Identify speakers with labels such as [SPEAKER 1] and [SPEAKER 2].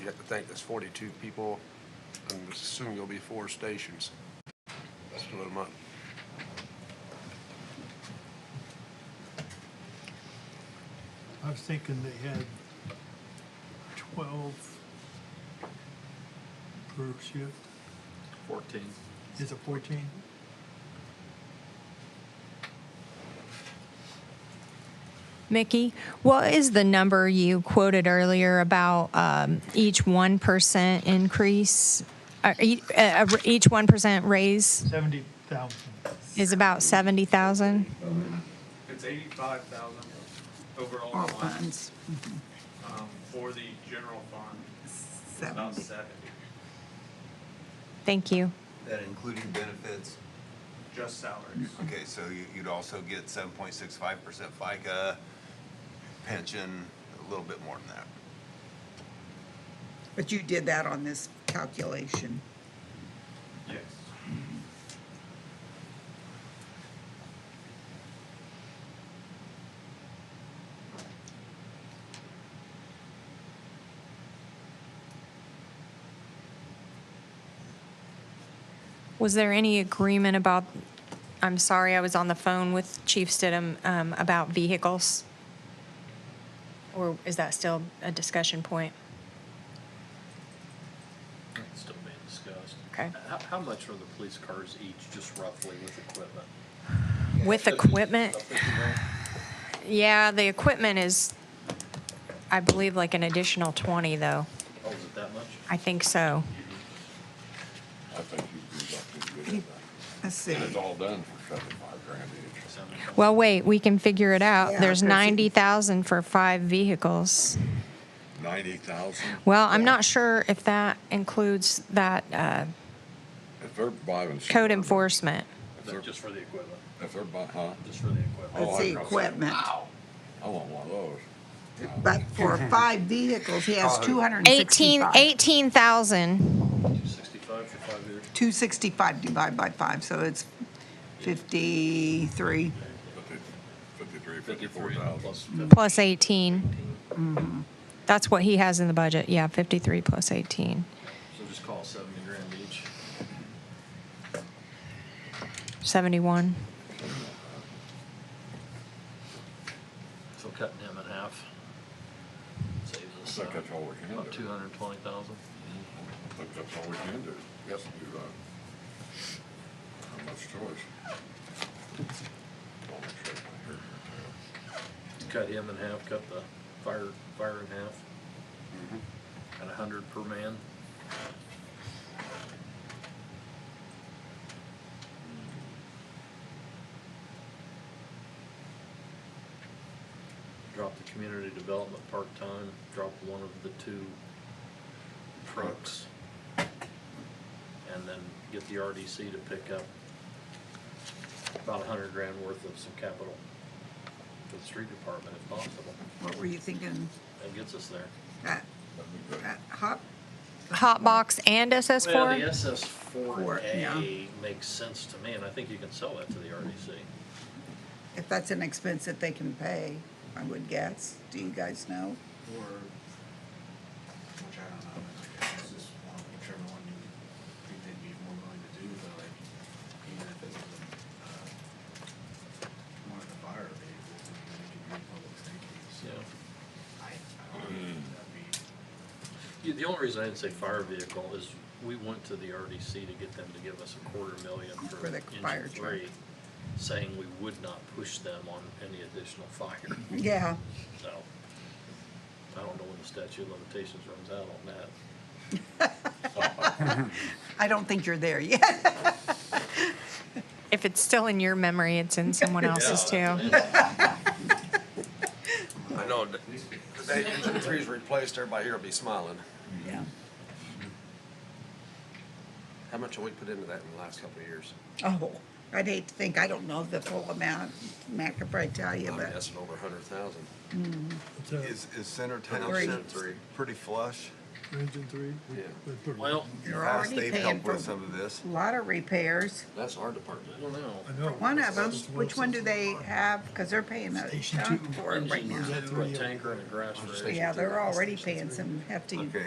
[SPEAKER 1] you have to think that's forty-two people, and assume you'll be four stations. That's a little much.
[SPEAKER 2] I was thinking they had twelve per shift.
[SPEAKER 3] Fourteen.
[SPEAKER 2] Is it fourteen?
[SPEAKER 4] Mickey, what is the number you quoted earlier about um, each 1% increase? uh, e- uh, uh, Each 1% raise
[SPEAKER 2] Seventy thousand.
[SPEAKER 4] is about 70,000?
[SPEAKER 5] It's eighty-five thousand overall
[SPEAKER 6] All
[SPEAKER 5] fund,
[SPEAKER 6] funds,
[SPEAKER 5] um, for the general fund, it's about
[SPEAKER 6] seventy.
[SPEAKER 5] seventy,
[SPEAKER 4] Thank you.
[SPEAKER 7] That including benefits?
[SPEAKER 5] just salaries.
[SPEAKER 6] Mm-hmm.
[SPEAKER 7] Okay, so you- you'd also get 7.65% FICA, pension, a little bit more than that.
[SPEAKER 6] But you did that on this calculation.
[SPEAKER 5] Yes.
[SPEAKER 4] Was there any agreement about, I'm sorry, I was on the phone with Chief Stidham um, about vehicles? Or is that still a discussion point?
[SPEAKER 3] It's still being discussed.
[SPEAKER 4] Okay.
[SPEAKER 3] How, how much are the police cars each, just roughly with equipment?
[SPEAKER 4] With
[SPEAKER 3] Should be
[SPEAKER 4] equipment?
[SPEAKER 3] about 50 grand.
[SPEAKER 4] Yeah, the equipment is, I believe, like an additional 20, though.
[SPEAKER 3] Oh, is it that much?
[SPEAKER 4] I think so.
[SPEAKER 8] I think you'd be lucky to get it.
[SPEAKER 6] Let's see.
[SPEAKER 8] And it's all done for seventy-five grand each.
[SPEAKER 3] Seven.
[SPEAKER 4] Well, wait, we can figure it out.
[SPEAKER 6] Yeah,
[SPEAKER 4] There's
[SPEAKER 6] there's a-
[SPEAKER 4] 90,000 for five vehicles.
[SPEAKER 8] Ninety thousand?
[SPEAKER 4] Well, I'm not sure if that includes that uh,
[SPEAKER 8] If they're buying.
[SPEAKER 4] code
[SPEAKER 8] Suburban-
[SPEAKER 4] enforcement.
[SPEAKER 8] If
[SPEAKER 3] That-
[SPEAKER 8] they're,
[SPEAKER 3] Just for the equipment,
[SPEAKER 8] if they're bu- huh?
[SPEAKER 3] just for the equipment.
[SPEAKER 6] Let's
[SPEAKER 8] Oh, I
[SPEAKER 6] see,
[SPEAKER 8] know.
[SPEAKER 6] equipment.
[SPEAKER 8] Wow. I want one of those.
[SPEAKER 6] But for five vehicles, he has two hundred and
[SPEAKER 4] 18
[SPEAKER 6] sixty-five.
[SPEAKER 3] Two
[SPEAKER 4] 18,000.
[SPEAKER 3] sixty-five for five years.
[SPEAKER 6] Two sixty-five divided by five, so it's fifty-three.
[SPEAKER 8] Fifty- Fifty-three, fifty-four
[SPEAKER 3] Fifty-three
[SPEAKER 8] thousand.
[SPEAKER 3] plus fifty.
[SPEAKER 4] plus 18. That's what he has in the budget. Yeah, 53 plus 18.
[SPEAKER 3] So just call it seventy grand each.
[SPEAKER 4] 71.
[SPEAKER 3] So cutting him in half. Saves us
[SPEAKER 8] Think
[SPEAKER 3] uh,
[SPEAKER 8] that's all we can
[SPEAKER 3] about
[SPEAKER 8] do.
[SPEAKER 3] two hundred and twenty thousand.
[SPEAKER 8] I think that's all we can do. Yes, you're right. Not much choice. I'll make sure my hair is
[SPEAKER 3] Cut him in half, cut the fire, fire in half. At a hundred per man. Drop the community development part-time, drop one of the two trucks. And then get the RDC to pick up about a hundred grand worth of some capital for the street department if possible.
[SPEAKER 6] What were you thinking?
[SPEAKER 3] That gets us there.
[SPEAKER 6] That, that hop?
[SPEAKER 4] Hot box and
[SPEAKER 3] Well, the
[SPEAKER 4] SS4?
[SPEAKER 3] SS
[SPEAKER 6] Four,
[SPEAKER 3] four
[SPEAKER 6] yeah.
[SPEAKER 3] A makes sense to me, and I think you can sell that to the RDC.
[SPEAKER 6] If that's an expense that they can pay, I would guess. Do you guys know?
[SPEAKER 9] or, which I don't know, I guess it's just one, whichever one you think they'd be more willing to do, but like, even if it's, uh, one of the fire vehicles, I mean, they can do public safety, so
[SPEAKER 3] Yeah.
[SPEAKER 9] I, I don't
[SPEAKER 8] Hmm.
[SPEAKER 9] know if that'd be,
[SPEAKER 3] You- The only reason I didn't say fire vehicle is we went to the RDC to get them to give us a quarter million for
[SPEAKER 6] For the fire
[SPEAKER 3] engine
[SPEAKER 6] truck.
[SPEAKER 3] three, saying we would not push them on any additional fire,
[SPEAKER 6] Yeah.
[SPEAKER 3] so. I don't know when the statute of limitations runs out on that.
[SPEAKER 6] I don't think you're there yet.
[SPEAKER 4] If it's still in your memory, it's in someone else's
[SPEAKER 3] Yeah,
[SPEAKER 4] too.
[SPEAKER 3] that's an
[SPEAKER 1] I know, that- the day engine three's replaced, everybody here will be smiling.
[SPEAKER 6] Yeah.
[SPEAKER 1] How much have we put into that in the last couple of years?
[SPEAKER 6] Oh, I'd hate to think, I don't know the full amount. Matt could probably tell you,
[SPEAKER 1] I'm
[SPEAKER 6] but
[SPEAKER 1] guessing over a hundred thousand.
[SPEAKER 2] It's a
[SPEAKER 7] Is, is center
[SPEAKER 6] Three.
[SPEAKER 7] town
[SPEAKER 1] Three.
[SPEAKER 7] pretty flush?
[SPEAKER 2] engine three.
[SPEAKER 1] Yeah.
[SPEAKER 2] With- with-
[SPEAKER 3] Well,
[SPEAKER 6] you're
[SPEAKER 7] Perhaps
[SPEAKER 6] already
[SPEAKER 7] they've
[SPEAKER 6] paying
[SPEAKER 7] helped
[SPEAKER 6] for
[SPEAKER 7] with some of this.
[SPEAKER 6] a lot of repairs.
[SPEAKER 1] That's our
[SPEAKER 3] I
[SPEAKER 1] department.
[SPEAKER 3] don't know.
[SPEAKER 2] I know.
[SPEAKER 6] One of them,
[SPEAKER 2] It's
[SPEAKER 6] which one do
[SPEAKER 2] Wilson's.
[SPEAKER 6] they have? Because they're paying a
[SPEAKER 2] Station
[SPEAKER 6] ton
[SPEAKER 2] two.
[SPEAKER 6] for it right
[SPEAKER 3] Engine,
[SPEAKER 6] now.
[SPEAKER 3] throw a tanker and a grass rig.
[SPEAKER 6] Yeah, they're already paying some hefty
[SPEAKER 7] Okay.